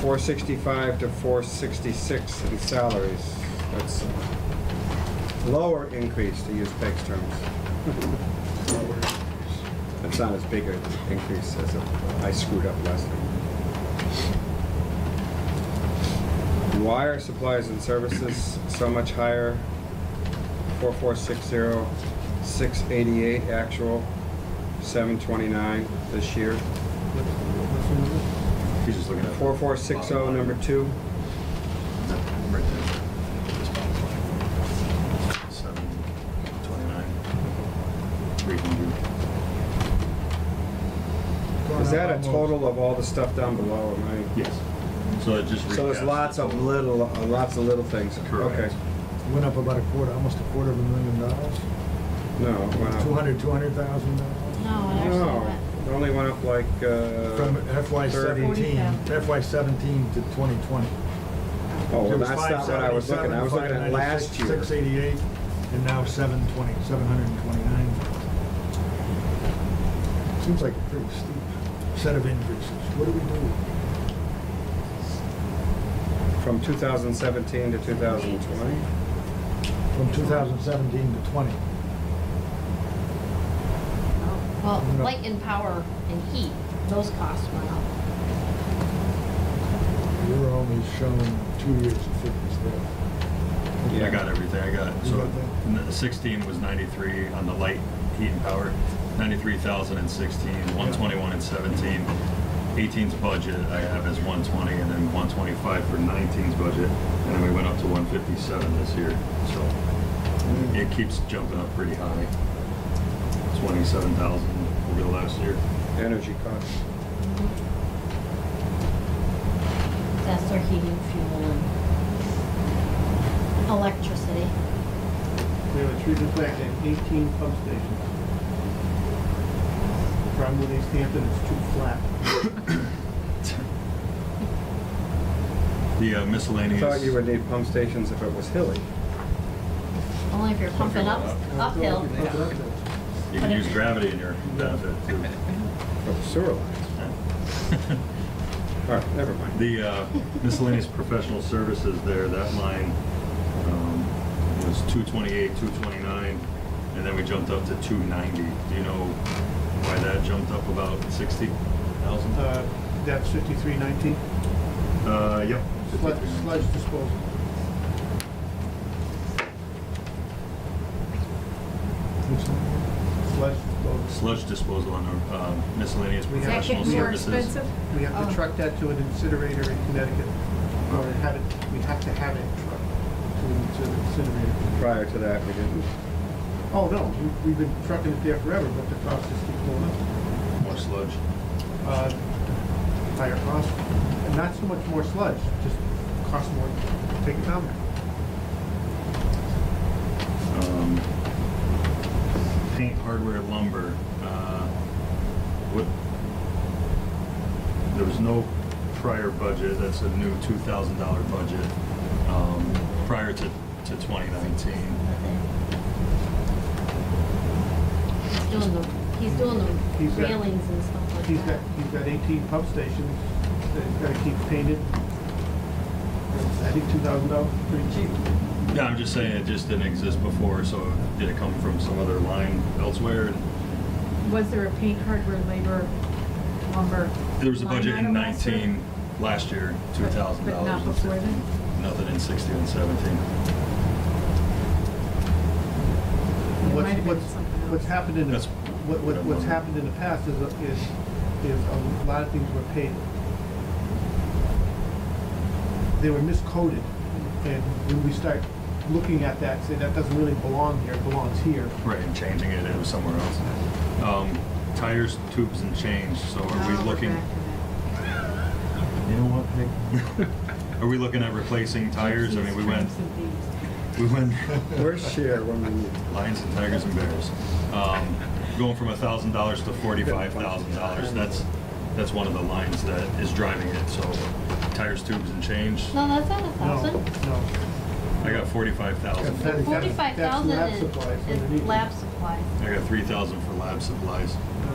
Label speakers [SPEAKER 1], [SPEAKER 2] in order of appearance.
[SPEAKER 1] four sixty-five to four sixty-six in salaries. That's lower increase, to use Peg's terms. That's not as big an increase as a- I screwed up last time. Why are supplies and services so much higher? Four four six zero, six eighty-eight actual, seven twenty-nine this year.
[SPEAKER 2] He's just looking at.
[SPEAKER 1] Four four six oh, number two.
[SPEAKER 2] No, Right there. This bottom line. Seven, twenty-nine, three hundred.
[SPEAKER 1] Is that a total of all the stuff down below, am I-
[SPEAKER 2] Yes. So it just.
[SPEAKER 1] So there's
[SPEAKER 2] recaps
[SPEAKER 1] lots
[SPEAKER 2] the
[SPEAKER 1] of
[SPEAKER 2] total.
[SPEAKER 1] little, uh, lots of little things.
[SPEAKER 2] Correct.
[SPEAKER 1] Okay.
[SPEAKER 3] Went up about a quarter, almost a quarter of a million dollars.
[SPEAKER 1] No, it went up.
[SPEAKER 3] Two hundred, two hundred thousand dollars.
[SPEAKER 4] No, it actually
[SPEAKER 1] No,
[SPEAKER 4] went.
[SPEAKER 1] it only went up like, uh.
[SPEAKER 3] From FY
[SPEAKER 1] 30.
[SPEAKER 3] seventeen, FY seventeen to twenty twenty.
[SPEAKER 1] Oh, well, that's not what I was looking, at. I was looking at last year.
[SPEAKER 3] Six eighty-eight, and now seven twenty, seven hundred and twenty-nine. Seems like a pretty steep set of increases. What do we do?
[SPEAKER 1] From two thousand seventeen to two thousand twenty?
[SPEAKER 3] From two thousand seventeen to twenty,
[SPEAKER 4] Well,
[SPEAKER 3] No.
[SPEAKER 4] light and power and heat, those costs went up.
[SPEAKER 3] we were only shown two years of figures there.
[SPEAKER 2] I got everything, I got it.
[SPEAKER 3] You
[SPEAKER 2] So
[SPEAKER 3] got that?
[SPEAKER 2] n- sixteen was ninety-three on the light, heat and power, ninety-three thousand and sixteen, one twenty-one and seventeen. 18's budget I have is one twenty and then one twenty-five for 19's budget. And then we went up to one fifty-seven this year, so
[SPEAKER 1] Mm.
[SPEAKER 2] it keeps jumping up pretty high. Twenty-seven thousand over the last year.
[SPEAKER 1] Energy costs.
[SPEAKER 4] That's their heating, fuel, and electricity.
[SPEAKER 5] We have a treatment plant and eighteen pump stations. Problem with East Hampton, it's too flat.
[SPEAKER 2] The uh,
[SPEAKER 1] I
[SPEAKER 2] miscellaneous.
[SPEAKER 1] thought you would need pump stations if it was hilly.
[SPEAKER 4] Only if you're pumping up, uphill.
[SPEAKER 2] You can use gravity in your benefit too.
[SPEAKER 1] Oh, sewer lines. All right, never mind.
[SPEAKER 2] The uh, miscellaneous professional services there, that line um, was 228, 229, and then we jumped up to 290. Do you know why that jumped up about 60,000?
[SPEAKER 5] Uh, That's fifty-three nineteen,
[SPEAKER 2] Uh, yep.
[SPEAKER 5] sludge, sludge disposal.
[SPEAKER 3] Which one?
[SPEAKER 5] Sludge disposal.
[SPEAKER 2] Sludge disposal on our um, miscellaneous
[SPEAKER 5] We have-
[SPEAKER 6] Does that
[SPEAKER 2] professional
[SPEAKER 6] get more
[SPEAKER 2] services.
[SPEAKER 6] expensive?
[SPEAKER 5] We have
[SPEAKER 4] Oh.
[SPEAKER 5] to truck that to an incinerator in Connecticut, or have it, we have to have it trucked to an to the incinerator.
[SPEAKER 1] Prior to that, we didn't.
[SPEAKER 5] Oh, no, we- we've been trucking it there forever, but the cost just keeps going up.
[SPEAKER 2] More sludge.
[SPEAKER 5] uh, higher cost, and not so much more sludge, just cost more to take it down there.
[SPEAKER 2] Um, Paint, hardware, lumber, uh, what, there was no prior budget, that's a new two thousand dollar budget, um, prior to, to twenty nineteen.
[SPEAKER 4] He's doing the, he's doing
[SPEAKER 5] He's
[SPEAKER 4] the
[SPEAKER 5] got-
[SPEAKER 4] railings and stuff like that.
[SPEAKER 5] He's got, he's got eighteen pump stations that he's gotta keep painted. I think two thousand dollars, pretty cheap.
[SPEAKER 2] Yeah, I'm just saying it just didn't exist before, so did it come from some other line elsewhere? And
[SPEAKER 6] Was there a paint, hardware, labor, lumber?
[SPEAKER 2] There was a
[SPEAKER 6] line
[SPEAKER 2] budget in
[SPEAKER 6] item last year?
[SPEAKER 2] nineteen, last year, two thousand
[SPEAKER 6] But
[SPEAKER 2] dollars.
[SPEAKER 6] not before then?
[SPEAKER 2] Nothing in sixteen and seventeen.
[SPEAKER 6] It might
[SPEAKER 5] What's,
[SPEAKER 6] have been
[SPEAKER 5] what's,
[SPEAKER 6] something else.
[SPEAKER 5] what's happened in, the-
[SPEAKER 2] That's-
[SPEAKER 5] what, what, what's
[SPEAKER 2] Mhm.
[SPEAKER 5] happened in the past is, a- is, is a lot of things were painted. They were miscoded, and when we start looking at that, say, that doesn't really belong here, it belongs here.
[SPEAKER 2] Right, and changing it, it was somewhere else. Um, tires, tubes, and change, so are we
[SPEAKER 6] Oh,
[SPEAKER 2] looking,
[SPEAKER 6] back to that.
[SPEAKER 3] You know what, Nick?
[SPEAKER 2] are we looking at replacing tires? I mean, we
[SPEAKER 6] Gypsies,
[SPEAKER 2] went,
[SPEAKER 6] tramps, and thieves.
[SPEAKER 2] we went
[SPEAKER 1] Where's share when we need?
[SPEAKER 2] lions and tigers and bears. Um, going from a thousand dollars to forty-five thousand dollars, that's, that's one of the lines that is driving it, so tires, tubes, and change,
[SPEAKER 4] No, that's not a
[SPEAKER 5] No,
[SPEAKER 4] thousand.
[SPEAKER 5] No,
[SPEAKER 2] I got forty-five thousand.
[SPEAKER 5] That's-
[SPEAKER 4] Forty-five
[SPEAKER 5] that's
[SPEAKER 4] thousand
[SPEAKER 5] lab
[SPEAKER 4] is, is
[SPEAKER 5] supplies underneath.
[SPEAKER 4] lab supplies.
[SPEAKER 2] I got three thousand for lab supplies.
[SPEAKER 5] no.